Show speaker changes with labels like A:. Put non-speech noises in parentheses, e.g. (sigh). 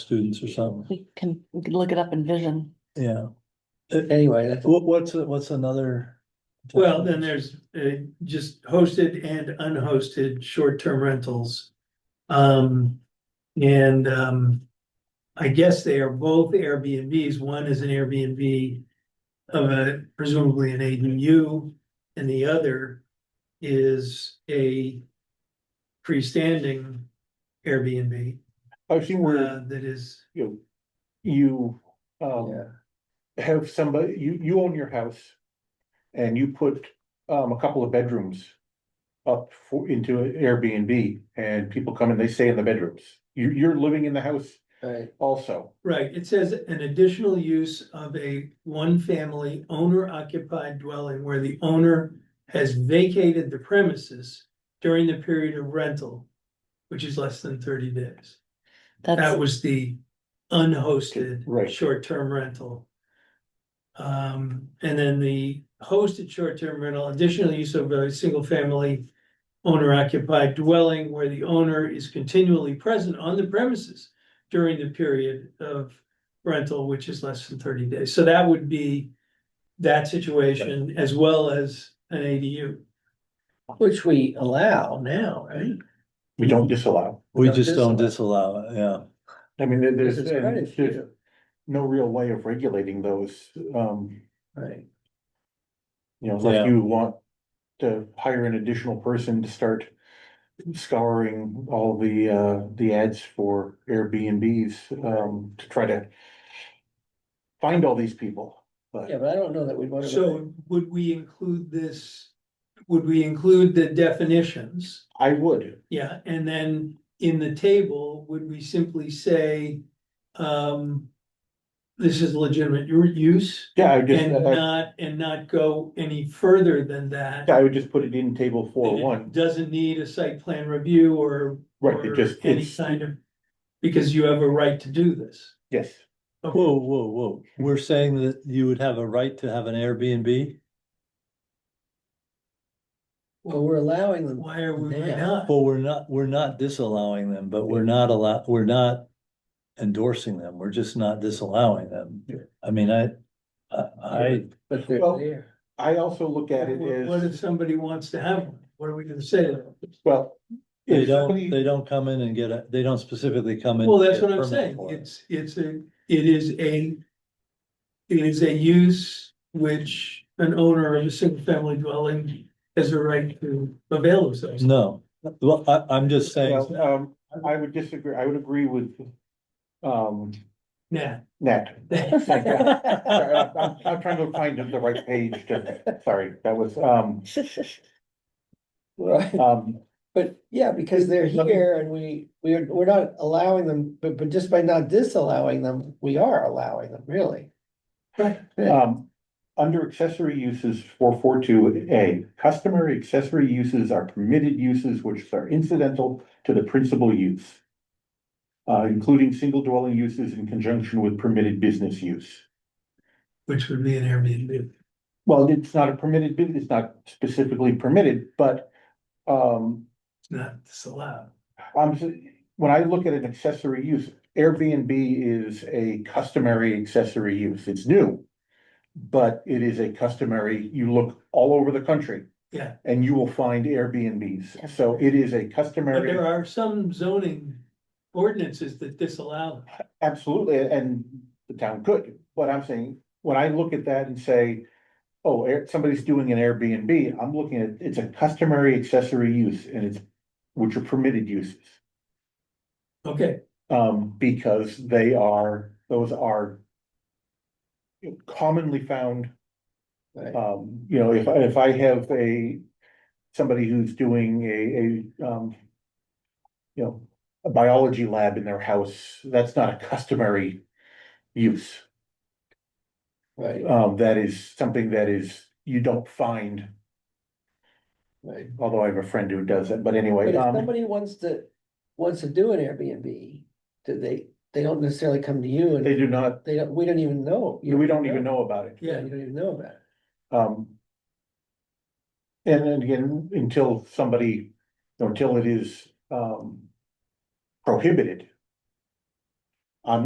A: students or something,
B: We can we can look it up in vision.
A: yeah.
C: Anyway, that's-
A: What, what's, what's another?
D: Well, then there's uh just hosted and unhosted short-term rentals. Um, and um. I guess they are both Airbnbs. One is an Airbnb. Of a presumably an ADU and the other is a. Freestanding Airbnb
C: I've seen where,
D: uh that is,
C: you, know, you, um,
A: Yeah,
C: have somebody, you, you own your house. And you put, um, a couple of bedrooms up for, into an Airbnb and people come and they stay in the bedrooms. You, you're living in the house
A: right,
C: also.
D: right, it says an additional use of a one-family owner occupied dwelling where the owner. has vacated the premises during the period of rental, which is less than thirty days. That
B: That's,
D: was the unhosted.
C: Right.
D: Short-term rental. Um, and then the hosted short-term rental, additional use of a single-family owner-occupied dwelling where the owner is continually present on the premises during the period of rental, which is less than thirty days. So that would be that situation as well as an ADU.
E: Which we allow now, right?
C: We don't disallow.
A: we
E: Don't
A: just don't
E: disallow.
A: disallow it, yeah.
C: I mean, there-
E: This
C: there's,
E: is
C: and there's
E: credit too,
C: no real way of regulating those, um,
E: right?
C: you know,
A: Yeah.
C: unless you want. To hire an additional person to start scouring all the, uh, the ads for Airbnbs, um, to try to. Find all these people,
E: Yeah,
C: but
E: but I don't know that we'd want to.
D: So would we include this, would we include the definitions?
C: I would,
D: Yeah, and then in the table, would we simply say, um. This is legitimate u- use
C: yeah, I would just,
D: and
A: uh,
C: I-
D: not, and not go any further than that.
C: I would just put it in table four
D: That it
C: one,
D: Doesn't need a site plan review or.
C: right, it
D: or
C: just,
D: Any
C: it's,
D: kind of, because you have a right to do this.
C: yes,
D: Okay.
A: Whoa, whoa, whoa, we're saying that you would have a right to have an Airbnb?
E: Well, we're allowing them,
D: Why are we why
E: Yeah.
D: not?
A: Well, we're not, we're not disallowing them, but we're not allow, we're not endorsing them, we're just not disallowing them.
C: Yeah.
A: I mean, I, I,
E: but they're
C: Well-
E: there.
C: I also look at it
D: What- What if
C: as,
D: somebody wants to have one? What are we gonna say to them?
C: well.
A: they
C: if
A: don't,
C: somebody-
A: they don't come in and get a, they don't specifically come in.
D: Well,
A: and
D: that's
A: get
D: what I'm
A: permit
D: saying.
A: for it.
D: It's, it's a, it is a. It is a use which an owner of a single family dwelling has a right to avail themselves.
A: No, well, I, I'm just saying,
C: Well, um, I would disagree, I would agree with, um,
D: Nah.
C: Nat. Sorry, I'm, I'm- I'm trying to find the right page, to- sorry, that was, um,
E: Right,
C: um,
E: but yeah, because they're
C: Let me-
E: here and we, we're, we're not allowing them, but, but just by not disallowing them, we are allowing them, really.
C: um. Under accessory uses four four two A, customary accessory uses are permitted uses which are incidental to the principal use. Uh, including single dwelling uses in conjunction with permitted business use.
D: (laughs) Which would be an Airbnb.
C: Well, it's not a permitted, bu- it's not specifically permitted, but, um,
D: It's not disallowed.
C: I'm, s- Um, when I look at an accessory use, Airbnb is a customary accessory use, it's new. But it is a customary, you look all over the country.
D: Yeah.
C: And you will find Airbnbs, so it is a
D: But there
C: customary,
D: are some zoning ordinances that disallow. them.
C: absolutely, and the town could, but I'm saying, when I look at that and say. Oh, Air- somebody's doing an Airbnb, I'm looking at, it's a customary accessory use and it's, which are permitted uses.
D: Okay,
C: Um, because they are, those are. Commonly found,
E: Right.
C: um, you know, if I, if I have a, somebody who's doing a, a, um. You know, a biology lab in their house, that's not a customary use.
E: Right,
C: Um, that is something that is, you don't find,
E: right.
C: although I have a friend who does it, but
E: But
C: anyway,
E: if
C: um,
E: somebody wants to, wants to do an Airbnb, do they, they don't necessarily come to you
C: they
E: and
C: do not,
E: they don't, we don't even know. You
C: we don't even know about it.
E: Yeah,
D: yeah,
E: you don't even know about it.
C: Um. And then again, until somebody, until it is, um. Prohibited,